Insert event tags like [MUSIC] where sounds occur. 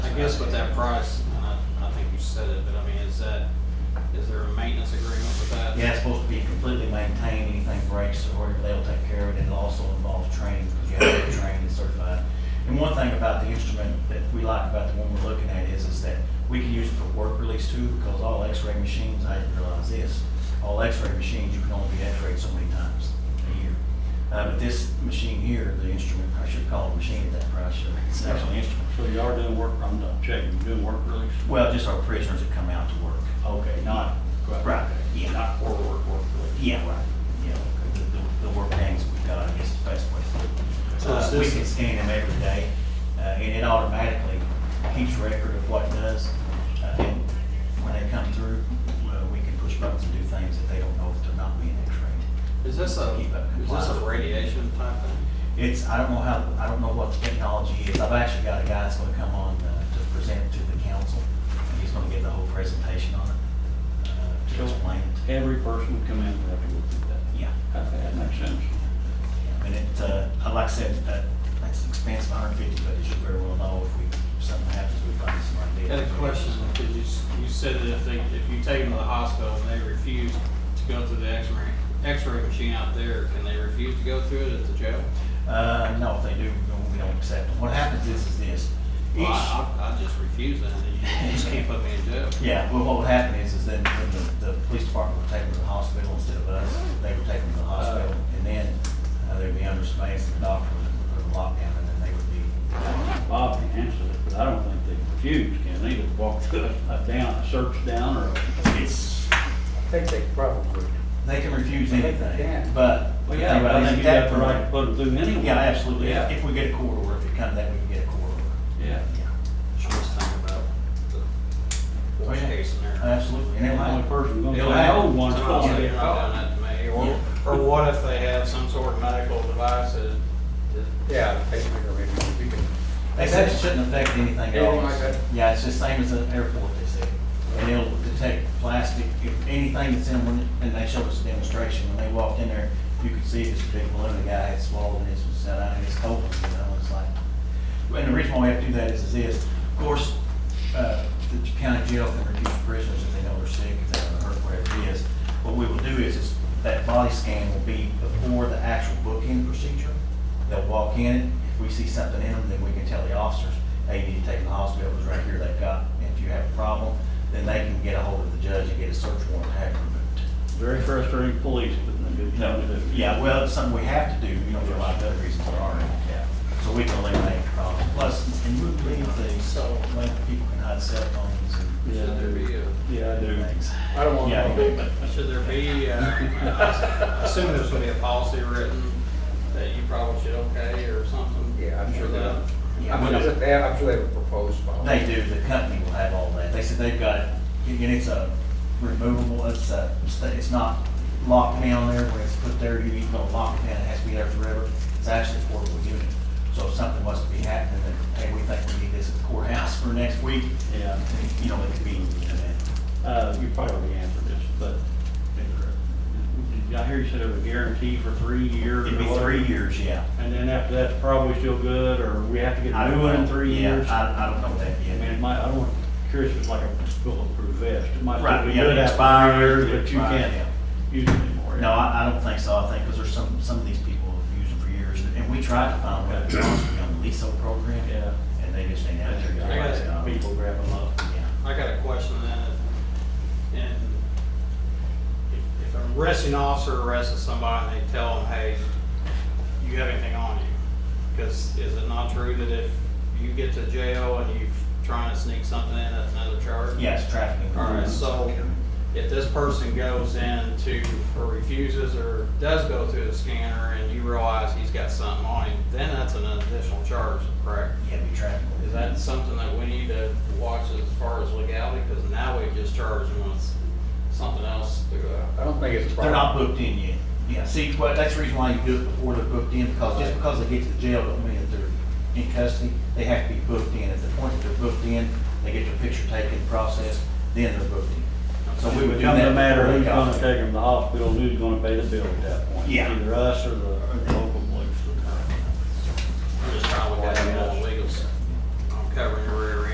guess with that price, and I, I think you said it, but I mean, is that, is there a maintenance agreement with that? Yeah, it's supposed to be completely maintained, anything breaks, or they'll take care of it, and it also involves training, because you have to be trained and certified. And one thing about the instrument that we like about the one we're looking at is, is that we can use it for work release too, because all x-ray machines, I didn't realize this, all x-ray machines, you can only be x-rayed so many times a year. Uh, but this machine here, the instrument, I should call it a machine at that price, sure, it's actually an instrument. So you are doing work, I'm not checking, you're doing work release? Well, just our prisoners that come out to work. Okay, not. Right, yeah. Not for work, work release. Yeah, right, yeah, the, the- the work gangs we've got, I guess is the best way to put it. So is Uh, We this- can scan them every day, uh, and it automatically keeps record of what it does. Uh, And when they come through, uh, we can push buttons and do things that they don't know if they're not being x-rayed. Is this a, Keep that is this a compliant. radiation type thing? It's, I don't know how, I don't know what the technology is. I've actually got a guy that's gonna come on uh, to present to the council, and he's gonna give the whole presentation on it, uh, to Sure. explain it. Every person would come in, would have to go through that. Yeah. Okay, that makes sense. I mean, it, uh, uh, like I said, uh, that's an expense of hundred fifty, but as you very well know, if we, if something happens, we find somebody. Got dead. a question, because you, s- you said that if they, if you take them to the hospital and they refuse to go through the x-ray, x-ray machine out there, can they refuse to go through it at the jail? Uh, no, if they do, we don't accept them. What happens is, is this. Well, Each, I, I I just refuse that, you just can't put me in jail. yeah, well, what would happen is, is then, then the, the police department would take them to the hospital instead of us. They would take them to the hospital, Oh. and then, uh, they'd be under surveillance, the doctor would put a lockdown, and then they would be. Bob can answer it, but I don't think they refuse, can they? Just walk [LAUGHS] to a down, a search down or a It's, think they probably. they can refuse They anything, can. but. Well, yeah, but I think you have the right to put them through anyway. Yeah, absolutely. Yeah. If we get a court order, if it comes that, we can get a court order. Yeah. Just think about the worst yeah. case scenario. Absolutely. And it The only might, person gonna say, They'll have oh, one's somebody gonna be sitting right down at me, Or, or what if they have some sort of medical device that, that- Yeah, pacemaker maybe, we can, they said it shouldn't affect anything Yeah, else. like that. Yeah, it's the same as an airport, they said. And it'll detect plastic, if anything that's in, one- and they showed us a demonstration, when they walked in there, you could see this big balloon, the guy had swallowed his, was set out, and it's open, you know, it's like. And the reason why we have to do that is, is this, of course, uh, the county jail can refuse prisoners if they know they're sick, if they haven't hurt, whatever it is. What we will do is, is that body scan will be before the actual booking procedure. They'll walk in, if we see something in them, then we can tell the officers, hey, you need to take them to the hospital, it's right here, they've got, and if you have a problem, then they can get a hold of the judge and get a search warrant and have it removed. very frustrating police, but a good No, job to do. yeah, well, it's something we have to do, you know, for a lot of other reasons there are, yeah. So we can eliminate the problem. Plus, and we leave things, so like people can hide cell phones and Yeah, should there be a, Yeah, I do. things. I don't want Yeah, to. [LAUGHS] should there be, uh, I assume there's gonna be a policy written that you probably should okay or something? Uh, Yeah, I'm sure For they- that? yeah, I'm we sure don't- they have, I'm sure they have a proposed policy. They do, the company will have all that. They said they've got, it, and it's a removable, it's a, it's not locked down there where it's put there, you need to lock it down, it has to be there forever. It's actually a portable unit. So if something was to be happening, then, hey, we think we need this at the courthouse for next week, Yeah. you know, it could be, I mean, Uh, you probably already answered this, but did I hear you said it was a guarantee for three years? It'd or be whatever? three years, yeah. And then after that's probably still good, or we have to get I a don't new one in know. three Yeah, years? I I, I don't know that mean, yet. it might, I don't, curious if it's like a bulletproof vest, it might Right, still be yeah, good after expired, three years, but you expired, yeah. can't use it anymore. No, I, I don't think so, I think, because there's some, some of these people have used it for years, and- and we tried to find one, to be honest with you, on the LISO program. Yeah. And they just ain't out there. I guess Yeah. got People grab them up. Yeah. I got a question then, and if, if an arresting officer arrests somebody and they tell them, hey, you have anything on you? Because is it not true that if you get to jail and you're trying to sneak something in, that's another charge? Yes, trafficking. All right, so if this person goes in to, or refuses, or does go through the scanner and you realize he's got something on him, then that's an additional charge, correct? Yeah, be trafficking. Is that something that we need to watch as far as legality, because now we just charge them with something else uh, through I that? don't think it's a They're problem. not booked in yet. Yeah, see, well, that's the reason why you do it before they're booked in, because just because they get to the jail don't mean that they're in custody. They have to be booked in. At the point that they're booked in, they get their picture taken, processed, then they're booked in. So we would do that. Becomes a matter of who's before gonna they take got them to the hospital, and who's gonna pay the bill at that point. Yeah. Either us or the there.